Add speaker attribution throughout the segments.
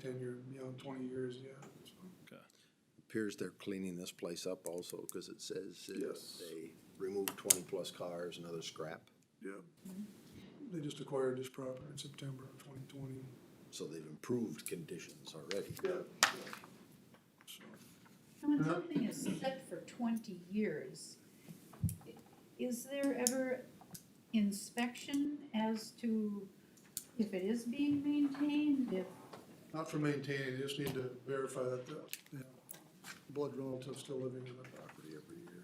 Speaker 1: tenure beyond twenty years, yeah. so.
Speaker 2: Appears they're cleaning this place up also, cause it says that
Speaker 1: Yes.
Speaker 2: they removed twenty plus cars and other scrap,
Speaker 1: Yeah. They just acquired this property in September of twenty twenty.
Speaker 2: so they've improved conditions already.
Speaker 1: So,
Speaker 3: Now, when something is set for twenty years, i- is there ever inspection as to if it is being maintained, if,
Speaker 1: Not for maintaining, they just need to verify that the, they have blood relatives still living in the property every year.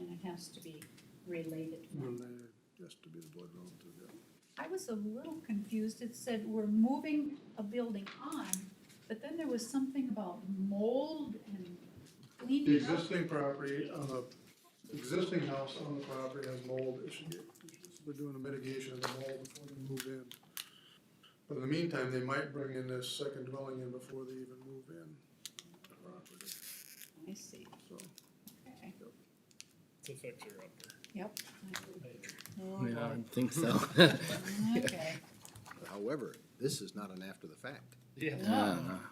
Speaker 3: and it has to be related?
Speaker 1: When they, has to be the blood relative, yeah.
Speaker 3: I was a little confused, it said we're moving a building on, but then there was something about mold and
Speaker 1: The
Speaker 3: cleaning up.
Speaker 1: existing property on the, existing house on the property has mold issue. They're doing a mitigation of the mold before they move in. But in the meantime, they might bring in this second dwelling in before they even move in. the property.
Speaker 3: I see,
Speaker 1: So,
Speaker 3: okay,
Speaker 4: It's a fixer upper.
Speaker 3: yep.
Speaker 5: I
Speaker 3: Oh,
Speaker 5: don't think so.
Speaker 3: Okay.
Speaker 2: However, this is not an after the fact.
Speaker 4: Yeah.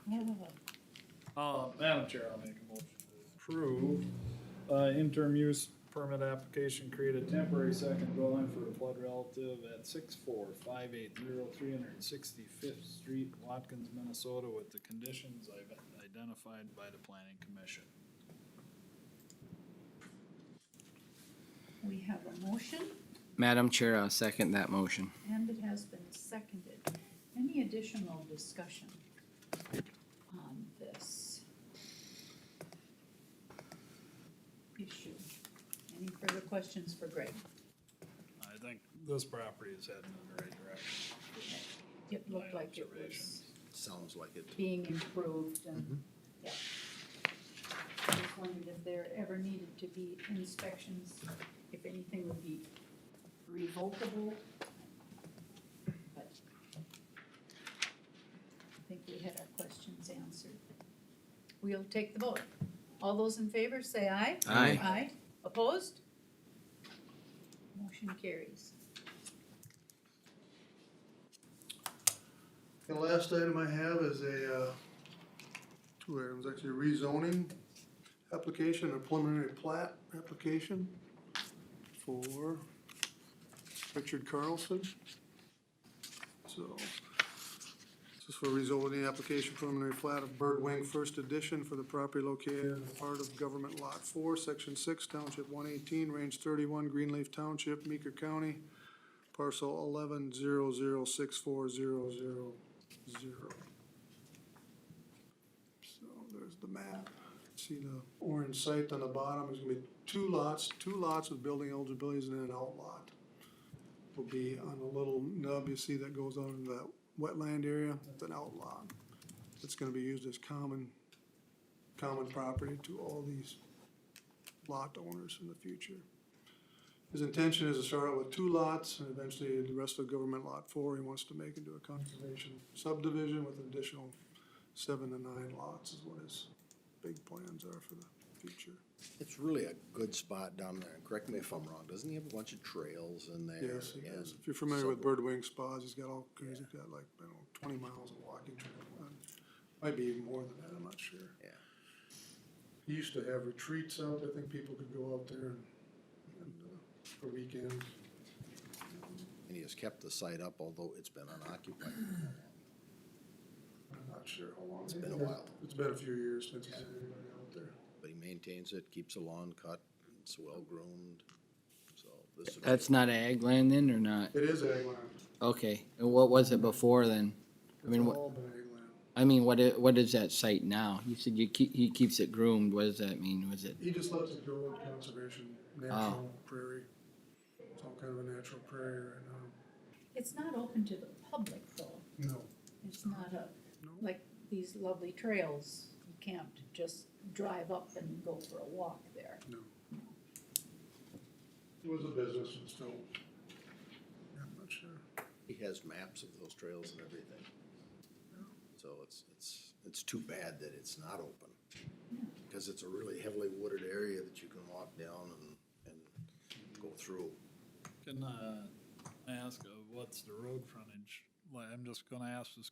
Speaker 3: Oh, oh.
Speaker 4: Uh, Madam Chair, I'll make a motion to approve, uh, interim use permit application, create a temporary second dwelling for a blood relative at six four five eight zero three hundred and sixty-fifth Street, Watkins, Minnesota, with the conditions I've identified by the planning commission.
Speaker 3: We have a motion
Speaker 5: Madam Chair, I'll second that motion.
Speaker 3: and it has been seconded. Any additional discussion on this issue? Any further questions for Greg?
Speaker 4: I think this property is heading in the right direction.
Speaker 3: It looked like it was
Speaker 2: Sounds like it.
Speaker 3: being improved and, yeah. I Just wondered if there ever needed to be inspections, if anything would be revocable. But I think we had our questions answered. We'll take the vote. All those in favor, say aye.
Speaker 5: Aye.
Speaker 3: Aye. Opposed? Motion carries.
Speaker 1: The last item I have is a, uh, two items, actually rezoning application, a preliminary plat application for Richard Carlson. So, this is for rezoning the application preliminary plat of Bird Wing First Edition for the property located in part of Government Lot Four, Section Six, Township one eighteen, Range thirty-one, Greenleaf Township, Meeker County, parcel eleven zero zero six four zero zero zero. So there's the map. See the orange site on the bottom, there's gonna be two lots, two lots with building eligibilities and an out lot. Will be on a little nub you see that goes out into that wetland area, it's an out lot. It's gonna be used as common, common property to all these lot owners in the future. His intention is to start out with two lots and eventually the rest of government lot four, he wants to make into a conservation subdivision with an additional seven to nine lots is what his big plans are for the future.
Speaker 2: It's really a good spot down there. And Correct me if I'm wrong, doesn't he have a bunch of trails in there?
Speaker 1: Yes, he does.
Speaker 2: and
Speaker 1: If you're familiar with
Speaker 2: suburbs?
Speaker 1: Bird Wing Spas, he's got all, he's got like, I don't know, twenty miles of walking trail. Um, Might be even more than that, I'm not sure.
Speaker 2: Yeah.
Speaker 1: He used to have retreats out, I think people could go out there and, and, uh, for weekends.
Speaker 2: And he has kept the site up, although it's been unoccupied.
Speaker 1: I'm not sure how long. It's
Speaker 2: been a while.
Speaker 1: It's been a few years since he's had anybody out there.
Speaker 2: But he maintains it, keeps the lawn cut, it's well-groomed, so this would be-
Speaker 5: That's not ag land then or not?
Speaker 1: It is ag land.
Speaker 5: Okay, and what was it before then? I mean,
Speaker 1: It's
Speaker 5: what,
Speaker 1: all been ag land.
Speaker 5: I mean, what, i- what is that site now? You said you keep, he keeps it groomed. What does that mean? Was it,
Speaker 1: He just lets it go with conservation, natural prairie. It's all kind of a natural prairie right
Speaker 3: It's not open to the public though.
Speaker 1: now. No.
Speaker 3: It's not a,
Speaker 1: No.
Speaker 3: like these lovely trails, you can't just drive up and go for a walk there.
Speaker 1: It was a business and still, I'm not sure.
Speaker 2: He has maps of those trails and everything. So it's, it's, it's too bad that it's not open. Because it's a really heavily wooded area that you can walk down and, and go through.
Speaker 4: Can, uh, I ask, uh, what's the road frontage? Like, I'm just gonna ask this